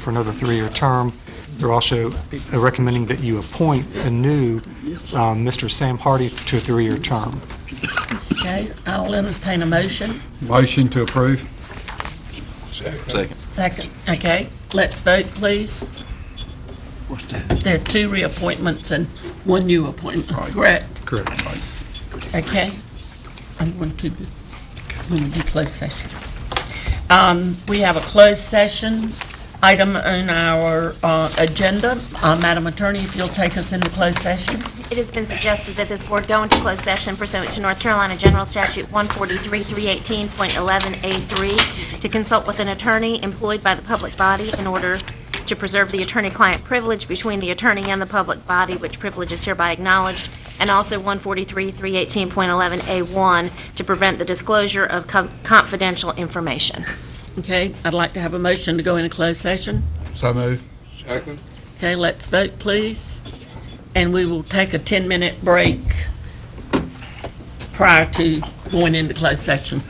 for another three-year term. They're also uh, recommending that you appoint a new um, Mr. Sam Hardy to a three-year term. Okay, I'll entertain a motion. Motion to approve? Second. Second. Okay, let's vote, please. There are two reappointments and one new appointment, Right. correct? Correct. Okay. I'm going to, I'm going to do closed session. Um, We have a closed session item on our uh, agenda. Uh, Madam Attorney, if you'll take us into closed session? It has been suggested that this board go into closed session pursuant to North Carolina General Statute 143-318.11A3 to consult with an attorney employed by the public body in order to preserve the attorney-client privilege between the attorney and the public body, which privilege is hereby acknowledged, and also 143-318.11A1 to prevent the disclosure of co- confidential information. Okay, I'd like to have a motion to go into closed session. So move. Second. Okay, let's vote, please. And we will take a 10-minute break prior to going into closed session.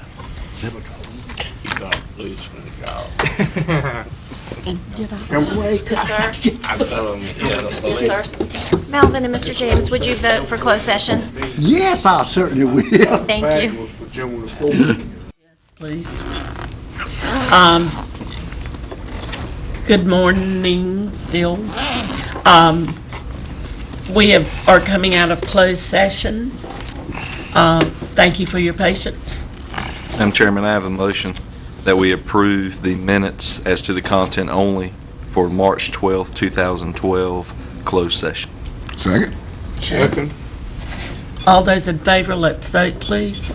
Yes, sir. Yes, sir. Melvin and Mr. James, would you vote for closed session? Yes, I certainly will. Thank you. Please. Um, Good morning still. Um, We have, are coming out of closed session. Um, Thank you for your patience. Madam Chairman, I have a motion that we approve the minutes as to the content only for March 12th, 2012, closed session. Second. All those in favor, let's vote, please.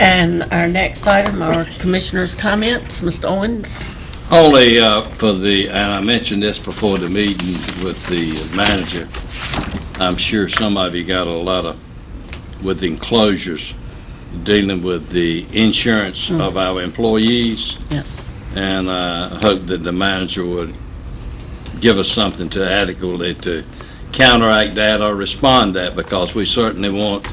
And our next item are commissioners' comments. Mr. Owens? Only uh, for the, and I mentioned this before the meeting with the manager, I'm sure some of you got a lot of, with enclosures, dealing with the insurance of our employees, Yes. and I hope that the manager would give us something to adequately to counteract that or respond that, because we certainly want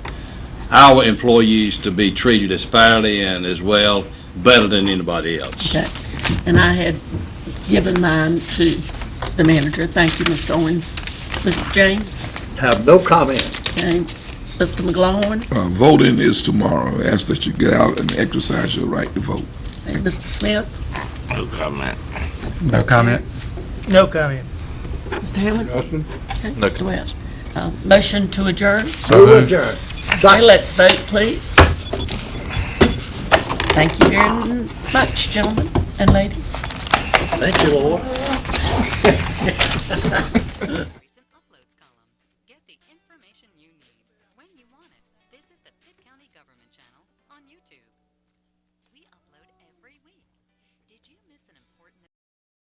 our employees to be treated as fairly and as well, better than anybody else. Okay. And I had given mine to the manager. Thank you, Mr. Owens. Mr. James? Have no comment. Okay. Mr. McGlaughlin? Uh, Voting is tomorrow. I Ask that you get out and exercise your right to vote. And Mr. Smith? No comment? No comment. Mr. Hammond? Okay, No Mr. West? Uh, Motion to adjourn? So Move moved. adjourned. Okay, let's vote, please. Thank you very much, gentlemen and ladies. Thank you, Lord. Recent uploads column. Get the information you need when you want it. Visit the Pitt County Government Channel on YouTube. We upload every week. Did you miss an important